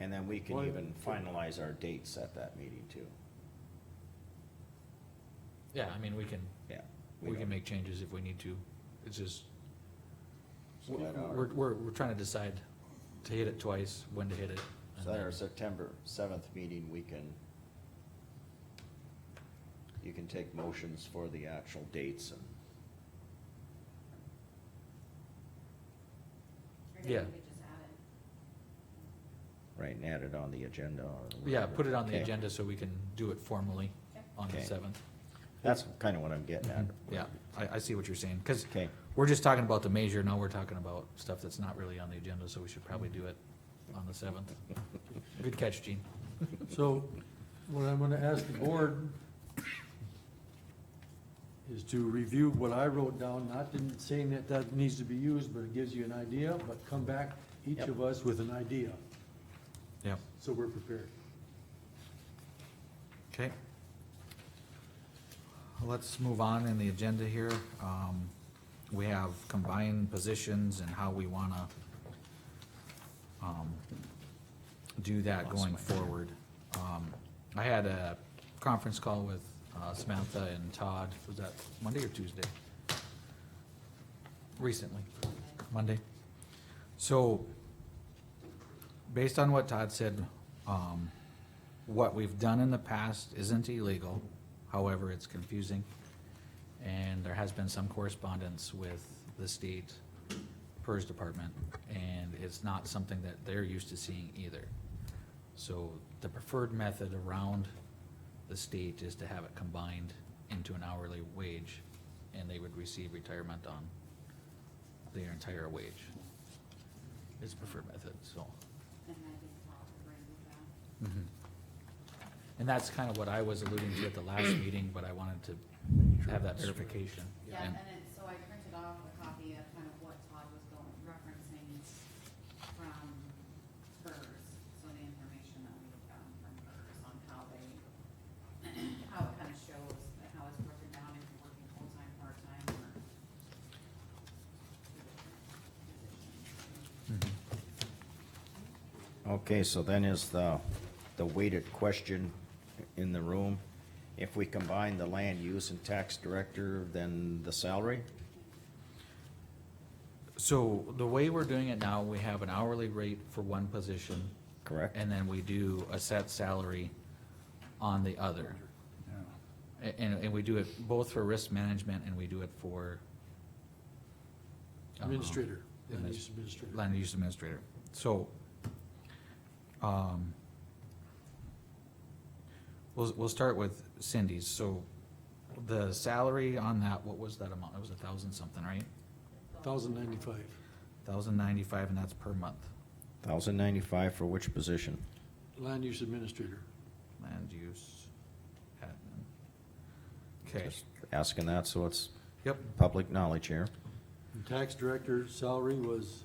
And then we can Well, even could- finalize our dates at that meeting too. Yeah, I mean, we can, Yeah. we can don't- make changes if we need to. It's just, So that we're, our, we're, we're trying to decide to hit it twice, when to hit it. and so that our then- September seventh meeting, we can, you can take motions for the actual dates and, Or did Yeah. we just add it? right, and add it on the agenda or. Yeah, whatever. put it on the Okay. agenda so we can do it formally Yep. on the Okay. seventh. Mhm. That's kinda what I'm getting at. Yeah, I, I see what you're saying, cause Okay, we're just talking about the measure, now we're talking about stuff that's not really on the agenda, so we should probably do it on the seventh. Good catch, Gene. So what I'm gonna ask the board is to review what I wrote down, not in saying that that needs to be used, but it gives you an idea, but come back, each Yep. of us with an idea, Yeah. so we're prepared. Okay. Let's move on in the agenda here. Um, we have combined positions and how we wanna, um, do that going forward. Um, I had a conference call with uh, Samantha and Todd, was that Monday or Tuesday? Recently, Monday. So, based on what Todd said, um, what we've done in the past isn't illegal, however, it's confusing. And there has been some correspondence with the state PERS department, and it's not something that they're used to seeing either. So the preferred method around the state is to have it combined into an hourly wage, and they would receive retirement on their entire wage. It's preferred method, so. And I think Paul would bring it back. Mhm. Mm-hmm. And that's kind of what I was alluding to at the last meeting, but I wanted to have that verification. Yeah, And- and then, so I printed off a copy of kind of what Todd was going, referencing from hers, so the information that we found from hers on how they, how it kind of shows, that how it's broken down if you're working full-time, part-time, or two different positions. Mhm. okay, so then is the, the weighted question in the room. If we combine the land use and tax director, then the salary? So the way we're doing it now, we have an hourly rate for one position, Correct. and then we do a set salary on the other. A- And, and we do it both for risk management and we do it for. um, Administrator, land adminis- use administrator. land use administrator. So, um, we'll, we'll start with Cindy's. So the salary on that, what was that amount? It was a thousand something, right? Thousand ninety-five, Thousand ninety-five and that's per month. Thousand ninety-five for which position? land use administrator. Land use admin. Okay, Just Asking that, so it's yep, public knowledge here. And Tax director's salary was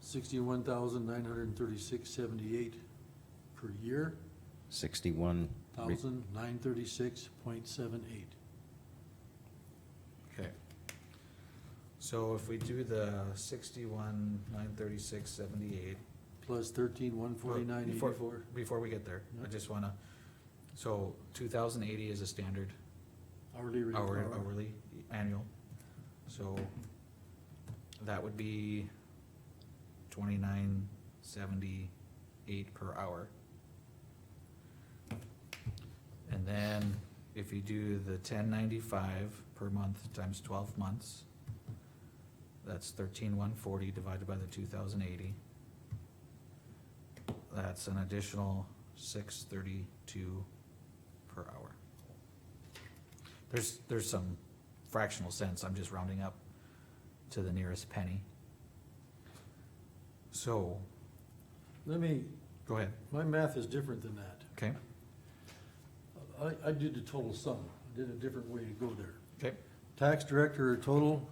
sixty-one thousand nine hundred and thirty-six seventy-eight per year. Sixty-one. re- thousand nine thirty-six point seven eight. okay. So if we do the sixty-one, nine thirty-six, seventy-eight, Plus thirteen one forty-nine Before- eighty-four. Before we get there, I Yeah. just wanna, so two thousand eighty is a standard Hourly rate. hour, hour. hourly, annual, so that would be twenty-nine seventy-eight per hour. And then if you do the ten ninety-five per month times twelve months, that's thirteen one forty divided by the two thousand eighty. That's an additional six thirty-two per hour. There's, there's some fractional sense, I'm just rounding up to the nearest penny. So, Let me, go ahead, my math is different than that. okay, I, I did the total sum, I did a different way to go there. okay, Tax director, total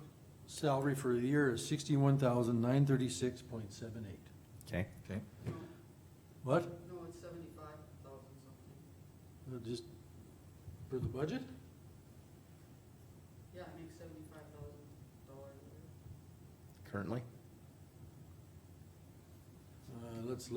salary for the year is sixty-one thousand nine thirty-six point seven eight. Okay, okay, What? No, it's seventy-five thousand something. Uh, Just for the budget? Yeah, it makes seventy-five thousand dollars. currently? Uh, let's